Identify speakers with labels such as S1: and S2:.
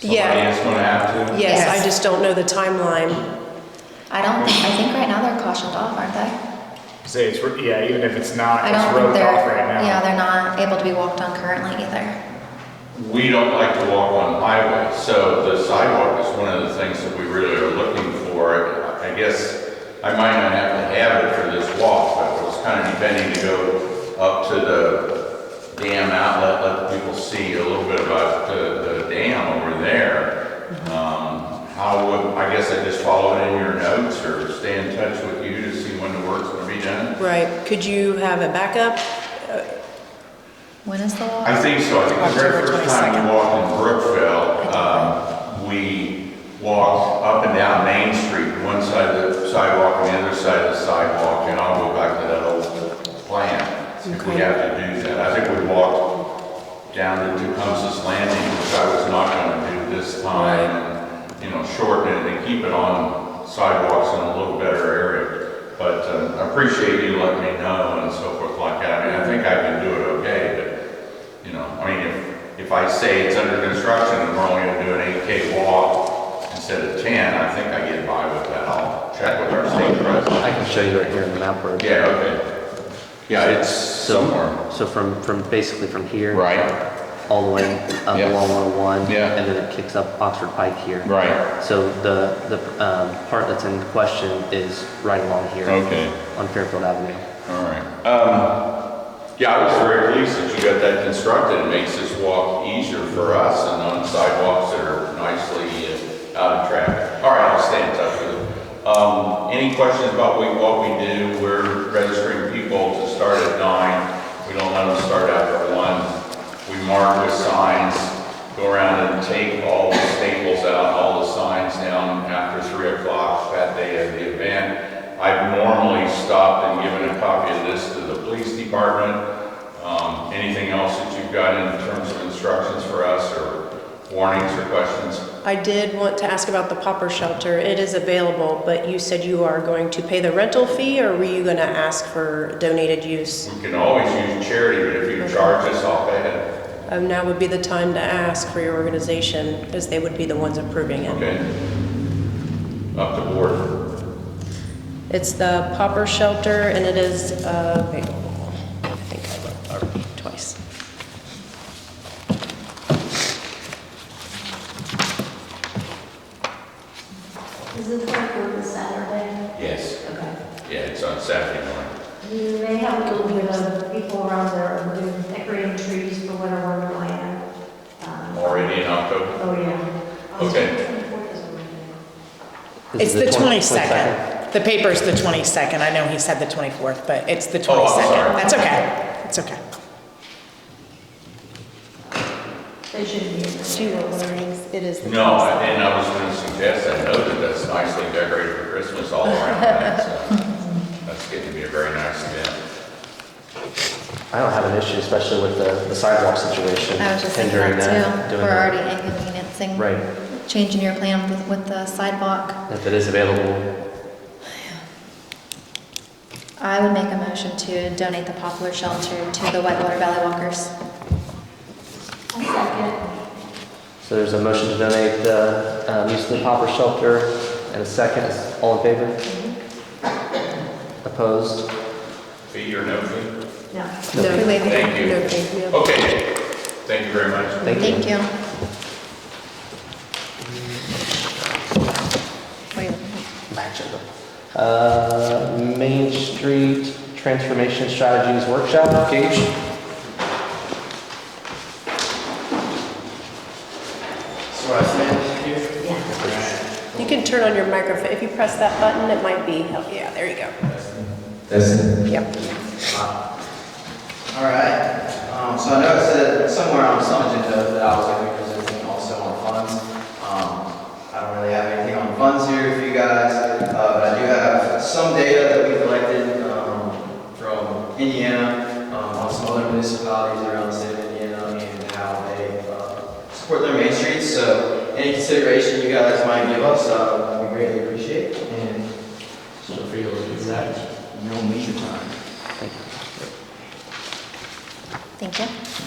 S1: Yeah.
S2: Somebody is going to have to.
S1: Yes, I
S3: Yes.
S1: just don't know the timeline.
S4: I don't think, I think right now they're cautioned off, aren't they?
S5: Say it's, ro- yeah, even if it's not,
S4: I
S5: it's
S4: don't think
S5: roped
S4: they're,
S5: off right now.
S4: yeah, they're not able to be walked on currently either.
S2: We don't like to walk on highways, so the sidewalk is one of the things that we really are looking for. I guess I might not have to have it for this walk, but I was kind of intending to go up to the dam outlet, let people see a little bit about the, the dam over there. Um, How would, I guess I just follow it in your notes or stay in touch with you to see when the work's gonna be done?
S1: Right, could you have it back up?
S4: When is the law?
S2: I think so. I think the very
S3: October
S2: first time
S3: 22nd.
S2: we walked in Brookville, um, we walked up and down Main Street, one side of the sidewalk and the other side of the sidewalk, and I'll go back to that old plan. If we
S1: Okay.
S2: have to do that. I think we walked down to Tecumseh's Landing, which I was not gonna do this time. and, You know, shorten it and keep it on sidewalks in a little better area. But um, I appreciate you letting me know and so forth like that. I mean, I think I can do it okay, but you know, I mean, if, if I say it's under construction and we're only gonna do an eight K walk instead of ten, I think I get by with that. I'll check with our state president.
S6: I can show you right here in the map where.
S2: Yeah, okay. Yeah, it's
S6: So-
S2: somewhere.
S6: So from, from, basically from here.
S2: Right.
S6: All the way up
S2: Yeah.
S6: along 101.
S2: Yeah.
S6: And then it kicks up Oxford Pike here.
S2: Right.
S6: So the, the um, part that's in question is right along here.
S2: Okay.
S6: On Fairfield Avenue.
S2: All right. Um, yeah, I was very pleased that you got that constructed. It makes this walk easier for us and on sidewalks that are nicely uh, out of traffic. All right, I'll stay in touch with you. Um, any questions about we- what we do? We're registering people to start at nine. We don't let them start after one. We mark with signs, go around and take all the staples out, all the signs down after three o'clock that day of the event. I've normally stopped and given a copy of this to the police department. Um, Anything else that you've got in terms of instructions for us or warnings or questions?
S1: I did want to ask about the popper shelter. It is available, but you said you are going to pay the rental fee, or were you gonna ask for donated use?
S2: We can always use charity, but if you charge us, I'll pay it.
S1: Um, Now would be the time to ask for your organization, because they would be the ones approving it.
S2: Okay? Up to board.
S1: It's the popper shelter, and it is uh, available. I think I looked already twice.
S7: Is this like on a Saturday?
S2: Yes.
S7: Okay.
S2: Yeah, it's on Saturday morning.
S7: You may have a little bit of people around there who do decorating trees for winter wonderland. Um,
S2: Already in October.
S7: Oh, yeah. Um,
S2: Okay.
S7: 24th is Monday.
S6: This
S3: It's
S6: is
S3: the
S6: 20
S3: 22nd. The paper's the 22nd. I know he said the 24th, but it's the 22nd.
S2: Oh, I'm sorry.
S3: That's okay. It's okay.
S7: They shouldn't be. in there.
S1: It is the
S2: No, and I was going to suggest, I know that that's nicely decorated for Christmas all around. that, so That's going to be a very nice event.
S6: I don't have an issue, especially with the the sidewalk situation.
S4: I was just thinking
S6: hindering
S4: that
S6: that,
S4: too.
S6: doing
S4: We're
S6: that.
S4: already inconveniencing.
S6: Right.
S4: Changing your plan with, with the sidewalk.
S6: If it is available,
S4: I would make a motion to donate the poplar shelter to the Whitewater Valley Walkers.
S7: A second.
S6: So there's a motion to donate the um, use of the popper shelter and a second. All in favor? Opposed?
S2: Fee or no fee?
S7: No.
S1: No,
S4: We waive it.
S2: Thank you.
S1: no, thank you.
S2: Okay, thank you very much.
S6: Thank you.
S4: Thank you. What are you looking at?
S6: Match it up. Uh, Main Street Transformation Strategies Workshop, Gage?
S8: So I stand here?
S1: You can turn on your microphone. If you press that button, it might be, oh, yeah, there you go. Yep.
S8: All right. Um, so I know it said somewhere on some agenda that I was going to be presenting also on funds. Um, I don't really have anything on funds here for you guys, uh, but I do have some data that we collected, um, from Indiana, um, on some other municipalities around the state of Indiana and how they, uh, support their main streets. So any consideration you guys might give us, uh, we greatly appreciate and so feel free to that. No measure time.
S4: Thank you.